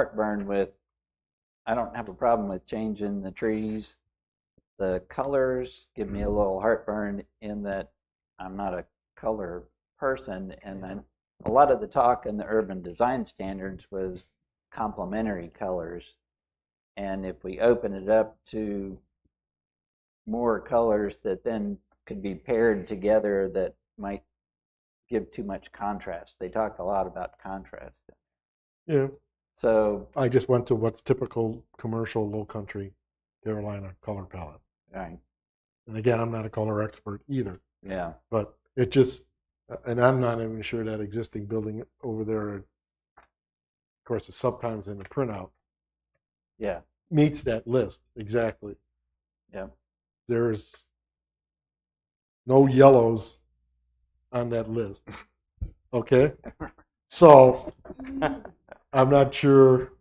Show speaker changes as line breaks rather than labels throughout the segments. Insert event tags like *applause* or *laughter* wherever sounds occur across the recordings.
heartburn with, I don't have a problem with changing the trees. The colors give me a little heartburn in that I'm not a color person. And then a lot of the talk in the urban design standards was complementary colors. And if we open it up to more colors that then could be paired together that might give too much contrast. They talk a lot about contrast.
Yeah,
So,
I just went to what's typical commercial low country Carolina color palette.
right,
And again, I'm not a color expert either,
yeah,
but it just, and I'm not even sure that existing building over there, of course, it's sometimes in the printout,
yeah,
meets that list exactly.
yeah,
There's no yellows on that list. *laughs* Okay? So I'm not sure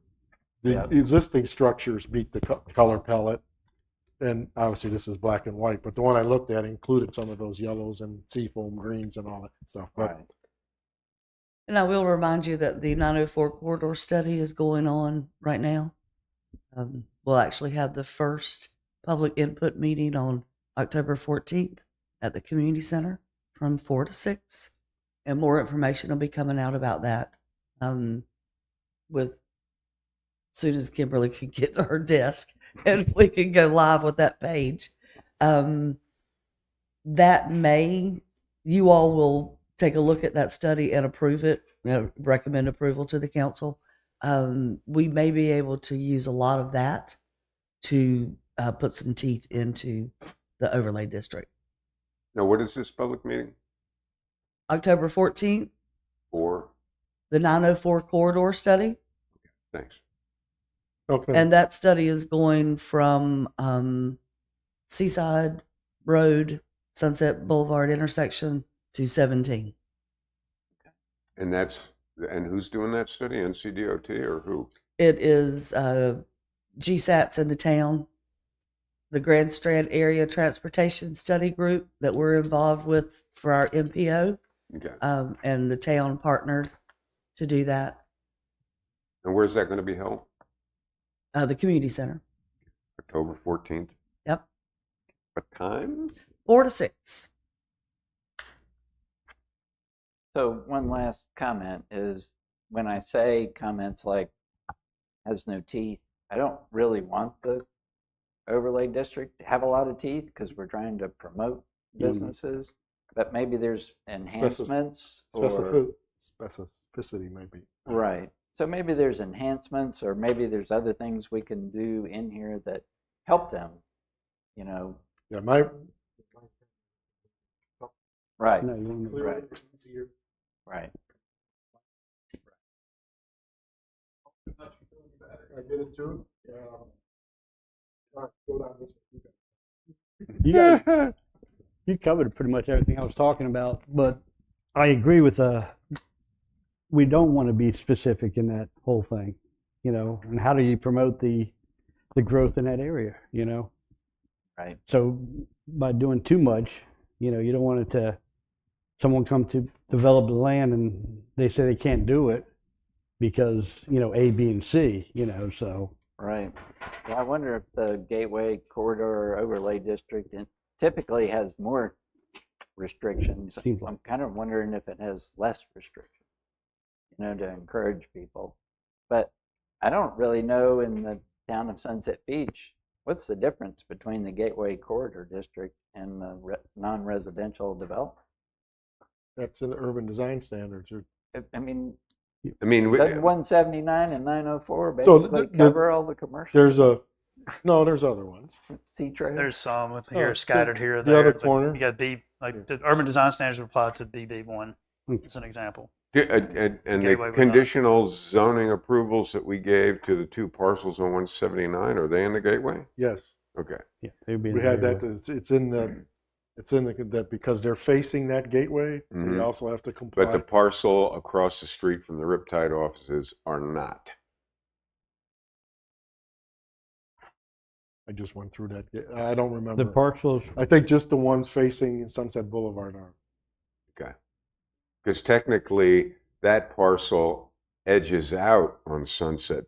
the
Yeah.
existing structures meet the co- color palette. And obviously, this is black and white, but the one I looked at included some of those yellows and seafoam greens and all that stuff.
*laughs*
But
right.
And I will remind you that the 904 corridor study is going on right now. Um, we'll actually have the first public input meeting on October 14th at the community center from 4 to 6. And more information will be coming out about that um, with soon as Kimberly *laughs* can get to her desk *laughs* and we can go live with that page. Um, that may you all will take a look at that study and approve it, you know, recommend approval to the council. Um, we may be able to use a lot of that to uh, put some teeth into the overlay district.
Now, what is this public meeting
October 14th,
for?
the 904 corridor study,
Thanks.
okay,
and that study is going from um, Seaside Road, Sunset Boulevard intersection to 17.
And that's, and who's doing that study? NCDOT or who?
It is uh, GSATs in the town, the Grand Strand Area Transportation Study Group that we're involved with for our MPO,
Okay.
um, and the town partnered to do that.
And where's that going to be held?
Uh, the community center,
October 14th?
Yep.
What time?
four to six.
So, one last comment is when I say comments like has no teeth, I don't really want the overlay district to have a lot of teeth because we're trying to promote businesses. But maybe there's enhancements or
Specifi- specificity maybe.
Right. So maybe there's enhancements or maybe there's other things we can do in here that help them, you know,
Yeah, my
right,
Clear
Right.
it, it's easier.
right.
I get it too. Um, all right, go down this way.
You, guys, you covered pretty much everything I was talking about, but I agree with uh, we don't want to be specific in that whole thing, you know. And how do you promote the the growth in that area, you know?
Right.
So by doing too much, you know, you don't want it to someone come to develop the land and they say they can't do it because you know A, B, and C, you know. So
Right. Well, I wonder if the Gateway Corridor Overlay District in- typically has more restrictions.
Seems like-
I'm kind of wondering if it has less restrictions, you know, to encourage people. But I don't really know in the town of Sunset Beach, what's the difference between the Gateway Corridor District and the re- non-residential development?
That's an urban design standards. or-
I- I mean,
I mean, we-
doesn't 179 and 904
So th-
basically
th-
cover all the commercial
There's a, no, there's other ones.
sea trade?
There's some with
Oh,
here
it's the-
scattered here. or
the other
there, like,
corner.
You got B,
Yeah.
like the urban design standards apply to BB one
Hmm.
as an example.
Yeah, And, and- uh, and
Get away
the
with that.
conditional zoning approvals that we gave to the two parcels on 179, are they in the gateway?
Yes,
Okay.
yeah, they would be in
we
the
had
area.
that. It's, it's in the, it's in the that because they're facing that gateway, they
Mhm.
also have to
But the
comply.
parcel across the street from the Riptide offices are not.
I just went through that. ga- I don't remember.
the parcels.
I think just the ones facing Sunset Boulevard are.
Because technically, that parcel edges out on Sunset